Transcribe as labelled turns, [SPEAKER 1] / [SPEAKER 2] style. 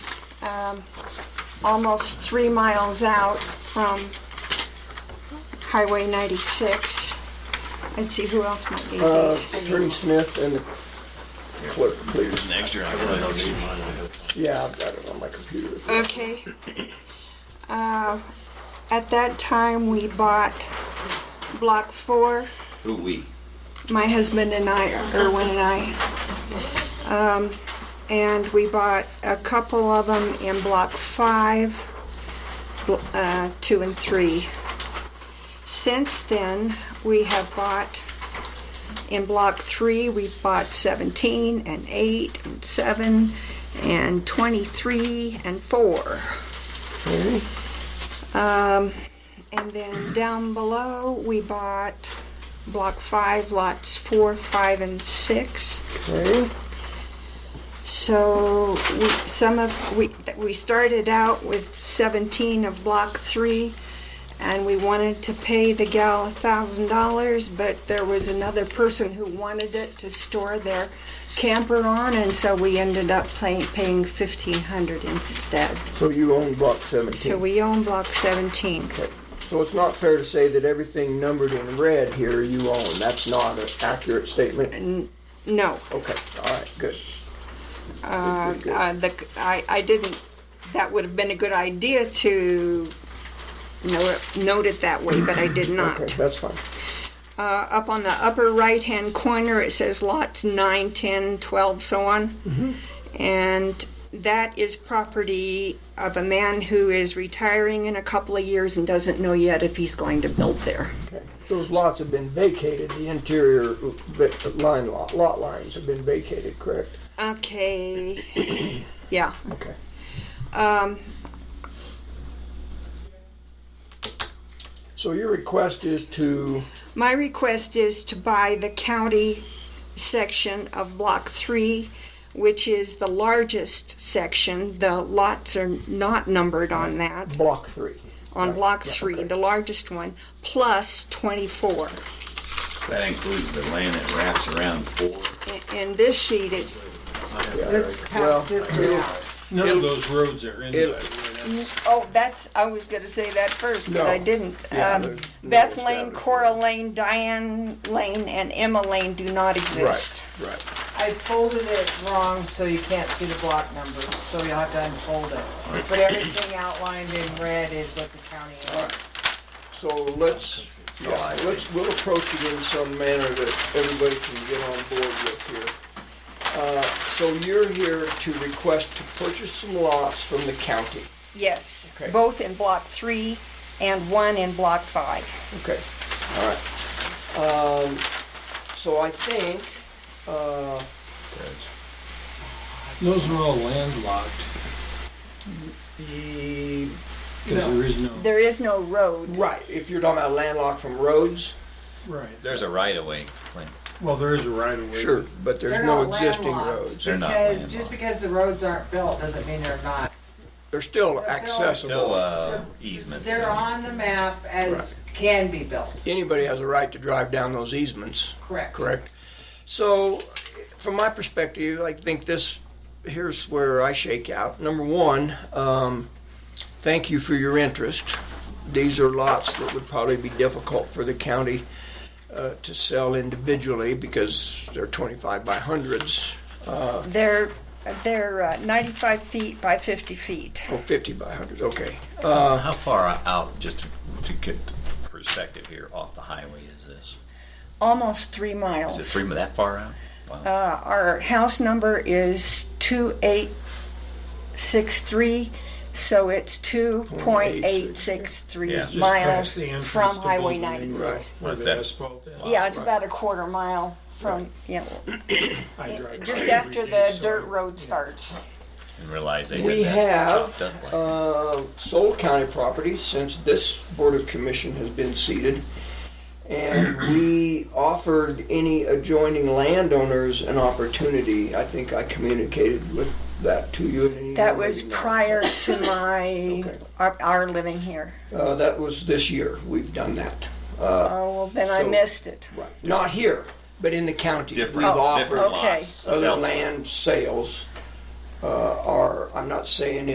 [SPEAKER 1] um, almost three miles out from Highway 96. Let's see, who else might need
[SPEAKER 2] Uh,
[SPEAKER 1] these?
[SPEAKER 2] Attorney Smith and the clerk, please.
[SPEAKER 3] Next year, I really don't need mine.
[SPEAKER 2] Yeah, I've got it on my computer.
[SPEAKER 1] Okay. Uh, At that time, we bought Block 4.
[SPEAKER 4] Who we?
[SPEAKER 1] my husband and I, Erwin and I. Um, and we bought a couple of them in block five, bl- uh, two and three. Since then, we have bought, in block three, we've bought 17 and eight and seven and 23 and four.
[SPEAKER 2] Okay.
[SPEAKER 1] Um, and then down below, we bought block five, lots four, five, and six.
[SPEAKER 2] Okay.
[SPEAKER 1] So we, some of, we, we started out with 17 of block three, and we wanted to pay the gal a thousand dollars, but there was another person who wanted it to store their camper on, and so we ended up paying, paying 1,500 instead.
[SPEAKER 2] So you own block
[SPEAKER 1] So
[SPEAKER 2] 17.
[SPEAKER 1] we own block 17.
[SPEAKER 2] So it's not fair to say that everything numbered in red here you own. That's not an accurate statement.
[SPEAKER 1] No,
[SPEAKER 2] Okay, all right, good.
[SPEAKER 1] Uh,
[SPEAKER 2] Good, good,
[SPEAKER 1] uh, the, I, I didn't, that would have been a good idea to note it, note it that way, but I did
[SPEAKER 2] good.
[SPEAKER 1] not.
[SPEAKER 2] Okay, that's fine.
[SPEAKER 1] Uh, up on the upper right-hand corner, it says lots 9, 10, 12, so on. And that is property of a man who is retiring in a couple of years and doesn't know yet if he's going to build there.
[SPEAKER 2] Okay. Those lots have been vacated, the interior vi- line lot, lot lines have been vacated, correct?
[SPEAKER 1] Okay, yeah.
[SPEAKER 2] Okay.
[SPEAKER 1] Um,
[SPEAKER 2] So your request is to,
[SPEAKER 1] My request is to buy the county section of Block 3, which is the largest section. The lots are not numbered on that,
[SPEAKER 2] block three.
[SPEAKER 1] on Block
[SPEAKER 2] yeah,
[SPEAKER 1] 3,
[SPEAKER 2] okay.
[SPEAKER 1] the largest one, plus 24.
[SPEAKER 4] That includes the land that wraps around four.
[SPEAKER 1] In- In this sheet, it's,
[SPEAKER 5] Let's
[SPEAKER 2] Well,
[SPEAKER 5] pass this around.
[SPEAKER 6] None of those roads are in
[SPEAKER 2] it'll-
[SPEAKER 6] that.
[SPEAKER 1] oh, that's, I was going to say that first, but I
[SPEAKER 2] No.
[SPEAKER 1] didn't.
[SPEAKER 2] Yeah,
[SPEAKER 1] Um,
[SPEAKER 2] there's no
[SPEAKER 1] Beth Lane,
[SPEAKER 2] establishment.
[SPEAKER 1] Cora Lane, Diane Lane, and Emma Lane do not exist.
[SPEAKER 2] Right.
[SPEAKER 5] I folded it wrong so you can't see the block numbers, so you'll have to unfold it. But everything outlined in red is what the county owns.
[SPEAKER 2] So let's, yeah, let's, we'll approach it in some manner that everybody can get on board with here. Uh, So you're here to request to purchase some lots from the county.
[SPEAKER 1] Yes,
[SPEAKER 2] Okay.
[SPEAKER 1] both in Block 3 and one in Block 5.
[SPEAKER 2] Okay, all right. Um, So I think, uh,
[SPEAKER 6] Those are all landlocked,
[SPEAKER 2] the,
[SPEAKER 6] because there is no,
[SPEAKER 1] There is no road.
[SPEAKER 2] right, if you're talking about landlocked from roads.
[SPEAKER 6] right,
[SPEAKER 4] There's a right of way.
[SPEAKER 6] well, there is a right of way.
[SPEAKER 2] But there's
[SPEAKER 5] They're
[SPEAKER 2] no
[SPEAKER 5] not
[SPEAKER 2] existing
[SPEAKER 5] landlocked
[SPEAKER 2] roads.
[SPEAKER 4] They're not
[SPEAKER 5] Because, just
[SPEAKER 4] landlocked.
[SPEAKER 5] because the roads aren't built doesn't mean they're not.
[SPEAKER 2] They're still
[SPEAKER 5] built.
[SPEAKER 4] Still,
[SPEAKER 2] accessible.
[SPEAKER 4] uh, easement.
[SPEAKER 5] They're on the map as
[SPEAKER 2] Right.
[SPEAKER 5] can be built,
[SPEAKER 2] Anybody has a right to drive down those easements.
[SPEAKER 5] correct?
[SPEAKER 2] correct? So, from my perspective, I think this, here's where I shake out. Number one, um, thank you for your interest. These are lots that would probably be difficult for the county uh, to sell individually because they're 25 by hundreds,
[SPEAKER 1] They're, they're uh, 95 feet by 50 feet.
[SPEAKER 2] or 50 oh, by hundreds, okay. Uh,
[SPEAKER 4] How far out, just to- to get perspective here, off the highway is this?
[SPEAKER 1] Almost three
[SPEAKER 4] Is it
[SPEAKER 1] miles.
[SPEAKER 4] three, that far out? Wow.
[SPEAKER 1] Uh, Our house number is 2863, so it's 2.863
[SPEAKER 4] Yeah.
[SPEAKER 6] Just past
[SPEAKER 1] miles
[SPEAKER 6] the entrance
[SPEAKER 1] from
[SPEAKER 6] to
[SPEAKER 1] Highway
[SPEAKER 6] Bolton and
[SPEAKER 1] 96.
[SPEAKER 6] Where
[SPEAKER 4] What's
[SPEAKER 6] the
[SPEAKER 4] that?
[SPEAKER 6] asphalt is.
[SPEAKER 1] Yeah, it's about a quarter mile from, yeah,
[SPEAKER 6] I drive
[SPEAKER 1] just
[SPEAKER 6] by every
[SPEAKER 1] after
[SPEAKER 6] day,
[SPEAKER 1] the
[SPEAKER 6] so
[SPEAKER 1] dirt
[SPEAKER 6] I-
[SPEAKER 1] road starts.
[SPEAKER 4] And realize they
[SPEAKER 2] We
[SPEAKER 4] had that
[SPEAKER 2] have,
[SPEAKER 4] chopped up like.
[SPEAKER 2] uh, sold county property since this Board of Commission has been seated. And we offered any adjoining landowners an opportunity. I think I communicated with that to you. in an email,
[SPEAKER 1] That was
[SPEAKER 2] maybe not.
[SPEAKER 1] prior to my, our- our living here.
[SPEAKER 2] Uh, that was this year. We've done that. Uh,
[SPEAKER 1] Oh, well, then I
[SPEAKER 2] So-
[SPEAKER 1] missed it.
[SPEAKER 2] right. Not here, but in the county. We've
[SPEAKER 4] Different,
[SPEAKER 2] offered
[SPEAKER 4] different
[SPEAKER 1] Oh, okay.
[SPEAKER 4] lots.
[SPEAKER 2] Other
[SPEAKER 4] elsewhere.
[SPEAKER 2] land sales, uh, are, I'm not saying